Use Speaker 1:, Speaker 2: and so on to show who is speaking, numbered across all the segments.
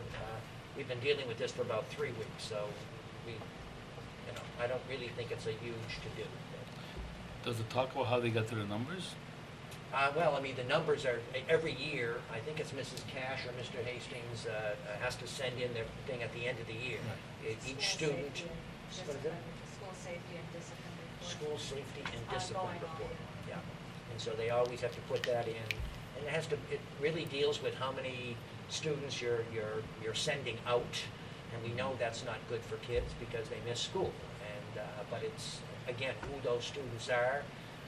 Speaker 1: Uh, we've been dealing with this for about three weeks, so we, you know, I don't really think it's a huge to-do.
Speaker 2: Does it talk about how they got to the numbers?
Speaker 1: Uh, well, I mean, the numbers are, every year, I think it's Mrs. Cash or Mr. Hastings, uh, has to send in their thing at the end of the year. E- Each
Speaker 3: School
Speaker 1: student,
Speaker 3: safety and
Speaker 1: What is it?
Speaker 3: discipline- School safety and discipline report.
Speaker 1: school safety and discipline
Speaker 3: Ongoing,
Speaker 1: report, yeah. And so they always have to put that in, and it has to, it really deals with how many students you're, you're, you're sending out. And we know that's not good for kids because they miss school. And, uh, but it's, again, who those students are.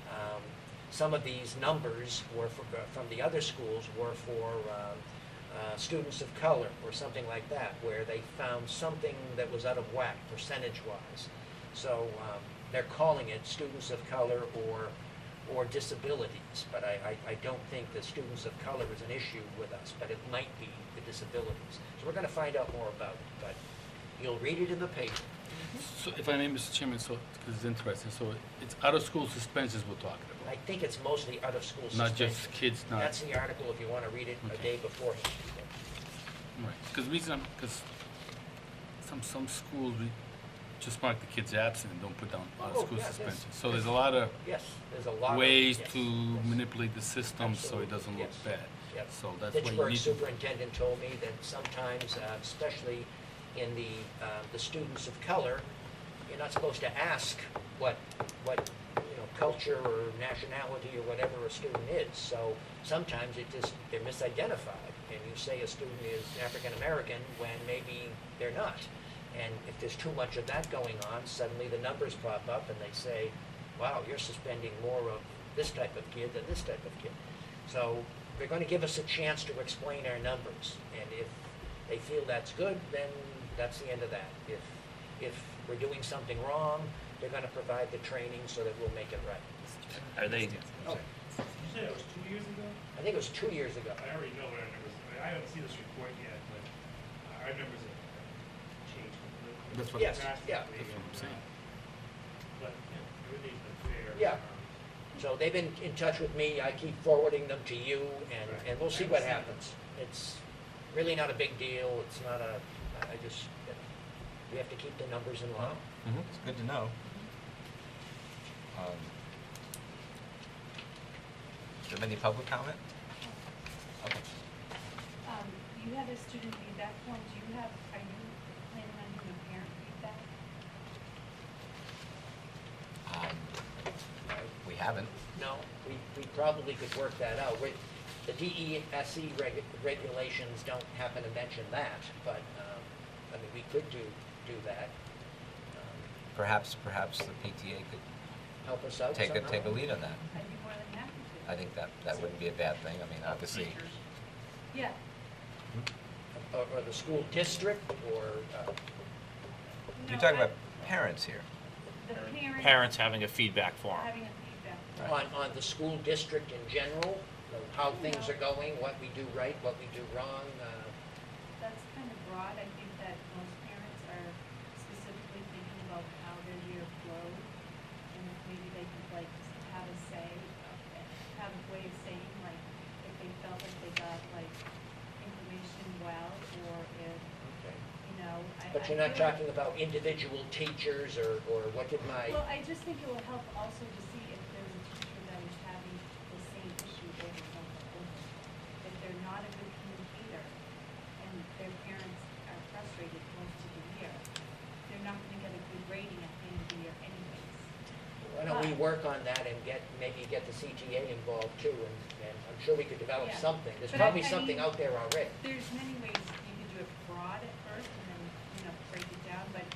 Speaker 1: Um, Some of these numbers were for, from the other schools were for, um, uh, students of color or something like that, where they found something that was out of whack percentage-wise. So um, they're calling it students of color or, or disabilities, but I, I, I don't think that students of color is an issue with us, but it might be the disabilities. So we're gonna find out more about it, but you'll read it in the paper.
Speaker 2: So if I may, Mr. Chairman, so, because it's interesting, so it's out-of-school suspensions we're talking
Speaker 1: I
Speaker 2: about?
Speaker 1: think it's mostly out of school
Speaker 2: Not
Speaker 1: suspension.
Speaker 2: just kids, not,
Speaker 1: That's the article if you wanna read it a
Speaker 2: Okay.
Speaker 1: day beforehand.
Speaker 2: right, because reason I'm, because some, some schools, we just mark the kids absent and don't put down
Speaker 1: Oh,
Speaker 2: out-of-school
Speaker 1: yeah, that's-
Speaker 2: suspensions. So there's a lot of
Speaker 1: Yes, there's a lot of.
Speaker 2: ways
Speaker 1: yes,
Speaker 2: to
Speaker 1: yes.
Speaker 2: manipulate the system so it
Speaker 1: Absolutely,
Speaker 2: doesn't look
Speaker 1: yes,
Speaker 2: bad.
Speaker 1: yes.
Speaker 2: So that's why you
Speaker 1: Pittsburgh
Speaker 2: need to.
Speaker 1: superintendent told me that sometimes, uh, especially in the, uh, the students of color, you're not supposed to ask what, what, you know, culture or nationality or whatever a student is. So sometimes it just, they're misidentified, and you say a student is African-American when maybe they're not. And if there's too much of that going on, suddenly the numbers pop up and they say, wow, you're suspending more of this type of kid than this type of kid. So they're going to give us a chance to explain our numbers, and if they feel that's good, then that's the end of that. If, if we're doing something wrong, they're going to provide the training so that we'll make it right.
Speaker 4: Are they,
Speaker 1: Oh,
Speaker 5: You said it was two years ago?
Speaker 1: I think it was two years ago.
Speaker 5: I already know what our numbers, I mean, I haven't seen this report yet, but our numbers have changed completely.
Speaker 2: That's what-
Speaker 1: Yes, yeah.
Speaker 2: That's what I'm saying.
Speaker 5: But, you know, everything's been fair.
Speaker 1: Yeah.
Speaker 5: Um,
Speaker 1: So they've been in touch with me, I keep forwarding them to you, and, and we'll see what happens. It's really not a big deal, it's not a, I I just, we have to keep the numbers in line.
Speaker 6: Mm-hmm. It's good to know. Um, Do you have any public comment? Okay.
Speaker 7: Um, you have a student feedback form, do you have, are you planning on doing a parent feedback?
Speaker 6: Um, We haven't.
Speaker 1: No, we, we probably could work that out. We- The E DESE reg- regulations don't happen to mention that, but, um, I mean, we could do, do that. Um,
Speaker 6: Perhaps, perhaps the PTA could
Speaker 1: Help us out
Speaker 6: take a,
Speaker 1: somehow.
Speaker 6: take a lead on that.
Speaker 7: I'd be more than happy to.
Speaker 6: I think that, that wouldn't be a bad thing. I mean, obviously,
Speaker 7: Yeah,
Speaker 1: Or, or the school district, or, uh,
Speaker 6: you're
Speaker 7: No,
Speaker 6: talking
Speaker 7: I-
Speaker 6: about parents here.
Speaker 7: The parent.
Speaker 4: parents having a feedback form?
Speaker 7: Having a feedback. form.
Speaker 1: on, on the school district in general, of how things are going, what we do right, what we do wrong, uh,
Speaker 7: That's kind of broad, I think that most parents are specifically thinking about how their year flowed, and if maybe they could like just have a say, uh, have a way of saying, like, if they felt like they got like information well, or if,
Speaker 1: okay.
Speaker 7: you know, I.
Speaker 1: But
Speaker 7: I
Speaker 1: you're not
Speaker 7: feel like-
Speaker 1: talking about individual teachers, or, or what did my,
Speaker 7: Well, I just think it will help also to see if there's a teacher that is having the same issue over and over and over. If they're not a good communicator and their parents are frustrated most of the year, they're not gonna get a good rating at the end of the year anyways.
Speaker 1: Why don't we work on that and get, maybe get the CTA involved too, and, and I'm sure we could develop
Speaker 7: Yeah.
Speaker 1: something. There's
Speaker 7: But I-
Speaker 1: probably
Speaker 7: I
Speaker 1: something
Speaker 7: mean- Oh.
Speaker 1: out there already.
Speaker 7: There's many ways you can do it broad at first and then, you know, break it down, but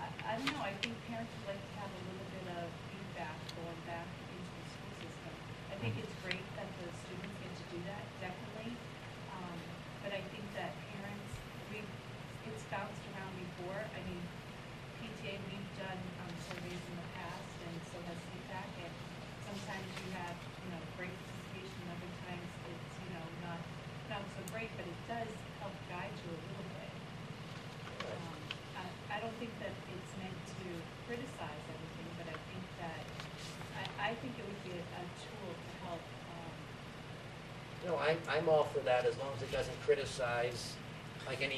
Speaker 7: I, I don't know, I think parents would like to have a little bit of feedback going back into the school system. I think it's great that the students get to do that, definitely, um, but I think that parents, we, it's bounced around before, I mean, PTA, we've done, um, surveys in the past, and so has feedback, and sometimes you have, you know, great participation, other times it's, you know, not, not so great, but it does help guide you a little bit. Um, I, I don't think that it's meant to criticize everything, but I think that, I, I think it would be a, a tool to help, um,
Speaker 1: No, I'm, I'm all for that, as long as it doesn't criticize, like any